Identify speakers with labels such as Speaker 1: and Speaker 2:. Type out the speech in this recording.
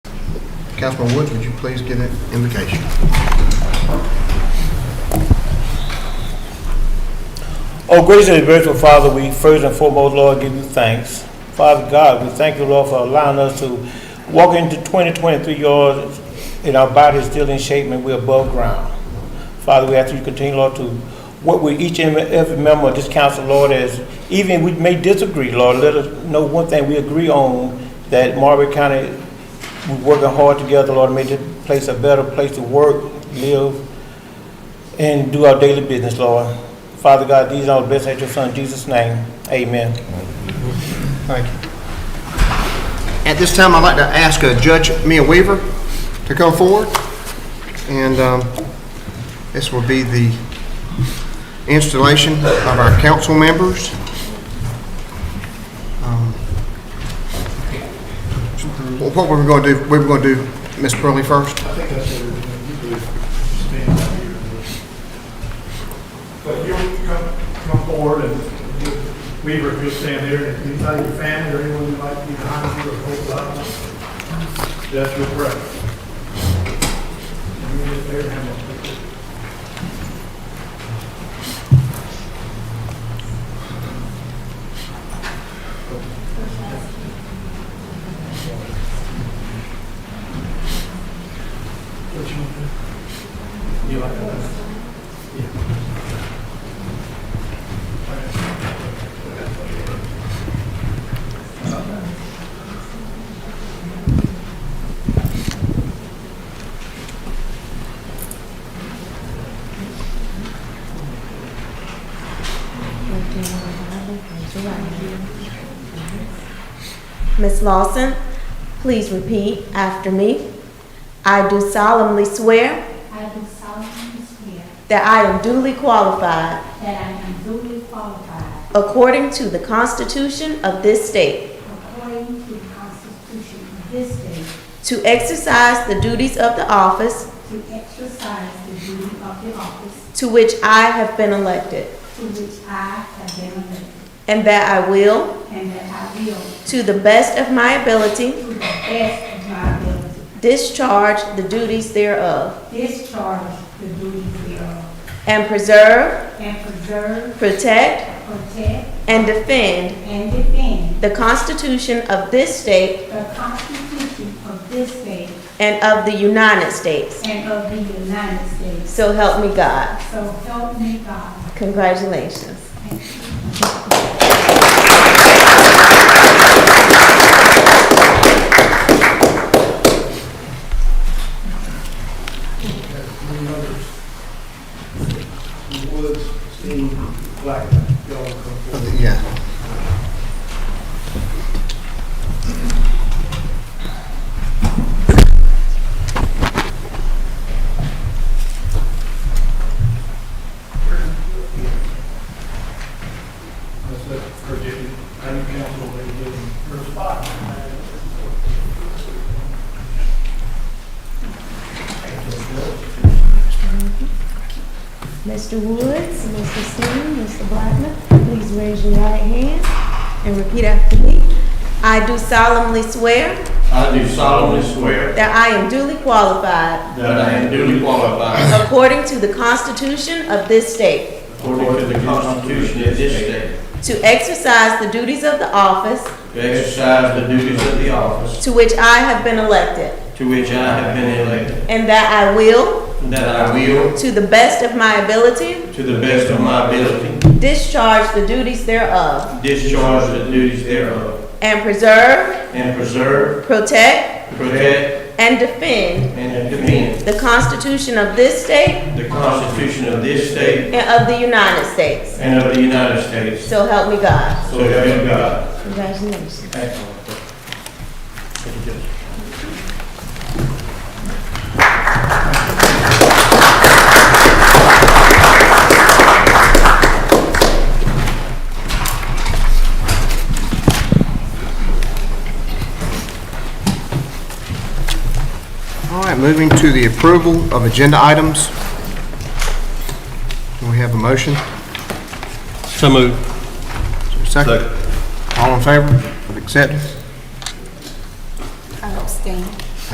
Speaker 1: Councilman Woods, would you please give an invocation?
Speaker 2: Oh, gracious and merciful Father, we first and foremost, Lord, give you thanks. Father God, we thank you, Lord, for allowing us to walk into 2023, Lord, and our body is still in shape and we're above ground. Father, we ask you to continue, Lord, to work with each and every member of this council, Lord, as even we may disagree, Lord, let us know one thing we agree on, that Marbury County, we're working hard together, Lord, to make this place a better place to work, live, and do our daily business, Lord. Father God, these are all blessed at your son Jesus' name. Amen.
Speaker 1: Thank you. At this time, I'd like to ask uh, Judge Mia Weaver to come forward, and um, this will be the installation of our council members. Um, well, What were we going to do, we were going to do Ms. Burley first?
Speaker 3: I think that's what we're gonna do, stand up here. But you come, come forward and Weaver, if you'll stand there, and if you tell your family or anyone who might be behind you or hold up, that's your prayer. And you get there, have a picture. What you want to do? You like that? Yeah.
Speaker 4: Miss Lawson, please repeat after me. I do solemnly swear
Speaker 5: I do solemnly swear
Speaker 4: that I am duly qualified,
Speaker 5: that I am duly qualified
Speaker 4: according to the Constitution of this state,
Speaker 5: according to the Constitution of this state
Speaker 4: to exercise the duties of the office
Speaker 5: to exercise the duty of the office
Speaker 4: to which I have been elected,
Speaker 5: to which I have been elected,
Speaker 4: and that I will,
Speaker 5: and that I will,
Speaker 4: to the best of my ability,
Speaker 5: to the best of my ability,
Speaker 4: discharge the duties thereof,
Speaker 5: discharge the duties thereof,
Speaker 4: and preserve,
Speaker 5: and preserve,
Speaker 4: protect,
Speaker 5: protect,
Speaker 4: and defend
Speaker 5: and defend
Speaker 4: the Constitution of this state
Speaker 5: the Constitution of this state
Speaker 4: and of the United States.
Speaker 5: and of the United States.
Speaker 4: So help me God.
Speaker 5: So help me God.
Speaker 4: Congratulations.
Speaker 3: Any others? Woods, Steen, Black, y'all come forward.
Speaker 1: Yeah.
Speaker 3: That's it, forget it, county council, they give them her spot.
Speaker 4: Mr. Woods, Mr. Steen, Mr. Blackman, please raise your right hand and repeat after me. I do solemnly swear
Speaker 6: I do solemnly swear
Speaker 4: that I am duly qualified,
Speaker 6: that I am duly qualified
Speaker 4: according to the Constitution of this state,
Speaker 6: according to the Constitution of this state
Speaker 4: to exercise the duties of the office
Speaker 6: to exercise the duties of the office
Speaker 4: to which I have been elected,
Speaker 6: to which I have been elected,
Speaker 4: and that I will,
Speaker 6: and that I will,
Speaker 4: to the best of my ability,
Speaker 6: to the best of my ability,
Speaker 4: discharge the duties thereof,
Speaker 6: discharge the duties thereof,
Speaker 4: and preserve,
Speaker 6: and preserve,
Speaker 4: protect,
Speaker 6: protect,
Speaker 4: and defend
Speaker 6: and defend
Speaker 4: the Constitution of this state
Speaker 6: the Constitution of this state
Speaker 4: and of the United States.
Speaker 6: and of the United States.
Speaker 4: So help me God.
Speaker 6: So help me God.
Speaker 4: Congratulations.
Speaker 1: All right, moving to the approval of agenda items. Do we have a motion?
Speaker 7: So moved.
Speaker 1: Second. All in favor of acceptance?